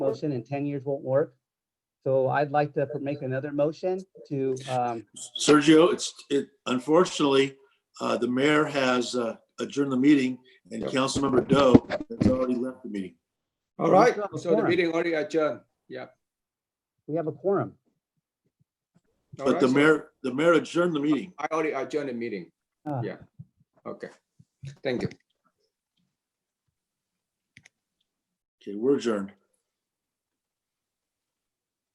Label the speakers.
Speaker 1: motion and ten years won't work. So I'd like to make another motion to, um,
Speaker 2: Sergio, it's, it, unfortunately, uh, the mayor has uh, adjourned the meeting and Councilmember Doe has already left the meeting.
Speaker 3: All right,
Speaker 1: still have a
Speaker 3: so the
Speaker 1: quorum.
Speaker 3: meeting already adjourned.
Speaker 1: we have a quorum.
Speaker 3: All
Speaker 2: But
Speaker 3: right,
Speaker 2: the
Speaker 3: so
Speaker 2: mayor, the mayor adjourned the meeting.
Speaker 3: I already adjourned the meeting.
Speaker 1: Ah.
Speaker 3: Yeah, okay. Thank you.
Speaker 2: Okay, we're adjourned.